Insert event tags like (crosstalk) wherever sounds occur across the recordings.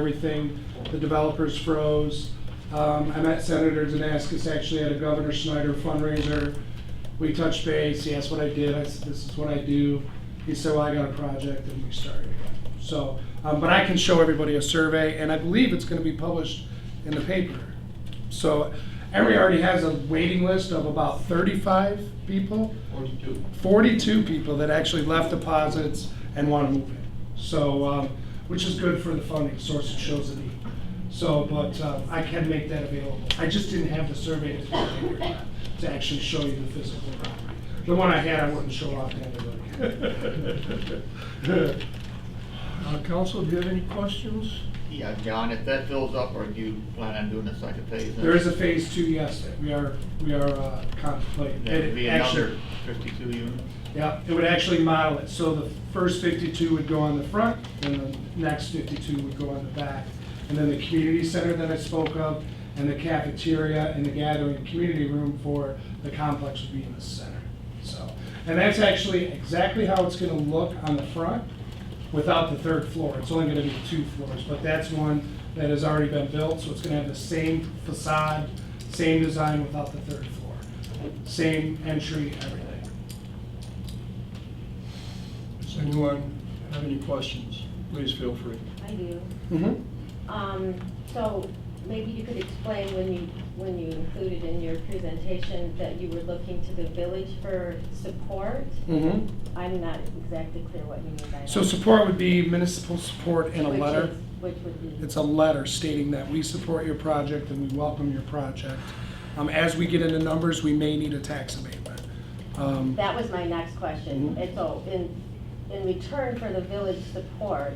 everything. The developers froze. Um, I met Senator Danaskis actually at a Governor Snyder fundraiser. We touched base, he asked what I did, I said, this is what I do. He said, well, I got a project, and we started again. So, um, but I can show everybody a survey, and I believe it's gonna be published in the paper. So Emory already has a waiting list of about thirty-five people. Forty-two. 42 people that actually left deposits and want to move in. So, um, which is good for the funding source, it shows the need. So, but uh, I can make that available. I just didn't have the survey to do it to actually show you the physical property. The one I had, I wouldn't show off to anybody. (laughs) Uh, Council, do you have any questions? Yeah, John, if that fills up, or do you plan on doing a second phase? There is a phase two, yes, that we are, we are uh, contemplating. That'd be It actually- another fifty-two units? Yeah, it would actually model it, so the first fifty-two would go on the front, and the next fifty-two would go on the back. And then the community center that I spoke of, and the cafeteria, and the gathering, and community room for the complex would be in the center, so. And that's actually exactly how it's gonna look on the front, without the third floor, it's only gonna be two floors, but that's one that has already been built, so it's gonna have the same facade, same design without the third floor, same entry, everything. Does anyone have any questions? Please feel free. I do. Mm-hmm. Um, so maybe you could explain when you, when you included in your presentation that you were looking to the village for support? Mm-hmm. I'm not exactly clear what you mean by that. So support would be municipal support in a Which is- letter. Which would be, It's a letter stating that we support your project and we welcome your project. Um, as we get into numbers, we may need a tax abatement. Um, that was my next question. Mhm. And so in, in return for the village support,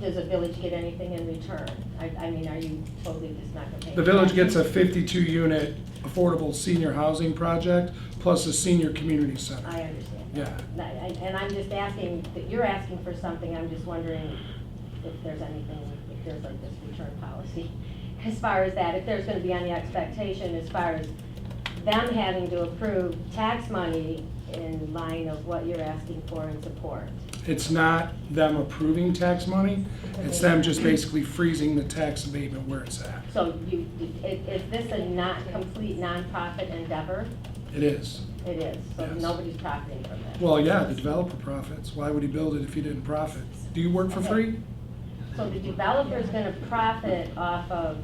does the village get anything in return? I, I mean, are you totally just not gonna pay? The village gets a fifty-two unit affordable senior housing project plus a senior community I center. understand. Yeah. And I- I- And I'm just asking, that you're asking for something, I'm just wondering if there's anything, if there's like this return policy (laughs) as far as that, if there's gonna be any expectation as far as them having to approve tax money in line of what you're asking for in support. It's not them approving tax money, it's them just basically freezing the tax abatement where it's at. So you, i- is this a not, complete nonprofit endeavor? It is. It is, so Yes. nobody's profiting from it. Well, yeah, the developer profits. Why would he build it if he didn't profit? Do you work for free? So the developer's gonna profit off of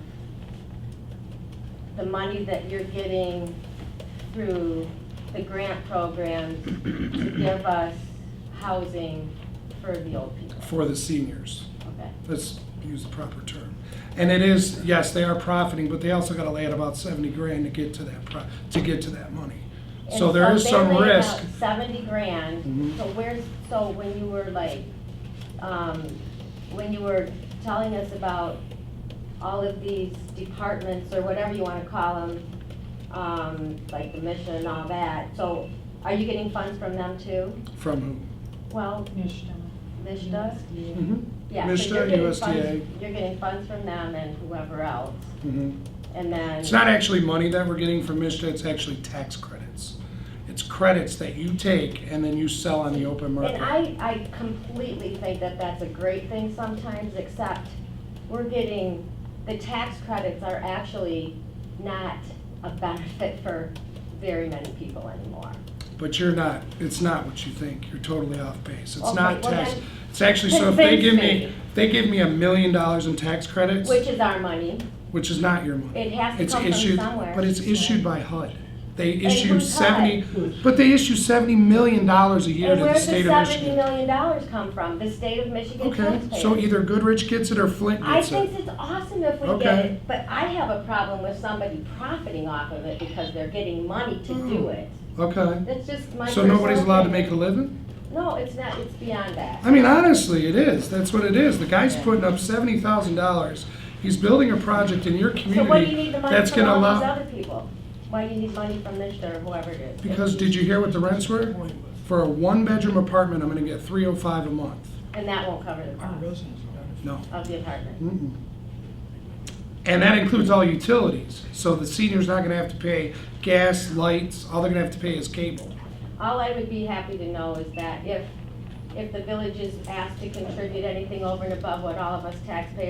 the money that you're getting through the grant program to give us housing for the old people, for the seniors. okay? Let's use the proper term. And it is, yes, they are profiting, but they also gotta lay out about seventy grand to get to that pro, to get to that money. So And there is they some laid out risk. Seventy grand, Mhm. so where's, so when you were like, um, when you were telling us about all of these departments or whatever you wanna call them, um, like the mission and all that, so are you getting funds from them too? From Well, Mishda? who? Mhm, Mm-hmm. Yeah, so you're Mishda, getting USDA. funds- You're getting funds from them and whoever else, mhm. and then. It's not actually money that we're getting from Mishta, it's actually tax credits. It's credits that you take and then you sell on the open market. And I, I completely think that that's a great thing sometimes, except we're getting, the tax credits are actually not a benefit (laughs) for very many people anymore. But you're not, it's not what you think. You're totally off base. It's Okay, not well tax. then- It's actually, so if they Convince give me. me, if they give me a million dollars in tax credits, Which is our money. which is not your money. It has to It's come from issued- somewhere. But it's issued by HUD. They who's issue HUD? seventy, but they issue seventy million dollars a year to And the where's the state of seventy Michigan. million dollars come from? The state of Michigan Okay, taxpayers. so either Goodrich gets it or Flint I gets think it. it's awesome if we get Okay. it, but I have a problem with somebody profiting off of it because they're getting money to do it. Okay, That's just my Hmm. so nobody's personal allowed to make opinion. a living? No, it's not, it's beyond that. I mean, honestly, it is. That's what it is. The guy's Yeah. putting up seventy thousand dollars. He's building a project in your So community. what do you need the money that's from gonna all allow- these other people? Why do you need money from this or whoever it is? Because did you hear what the rents were? For a one-bedroom apartment, I'm gonna get three oh five a month. And that won't cover the cost No. of the apartment. Mm-mm. And that includes all utilities, so the senior's not gonna have to pay gas, lights, all they're gonna have to pay is cable. All I would be happy to know is that if, if the village is asked to contribute anything over and above what all of us taxpayers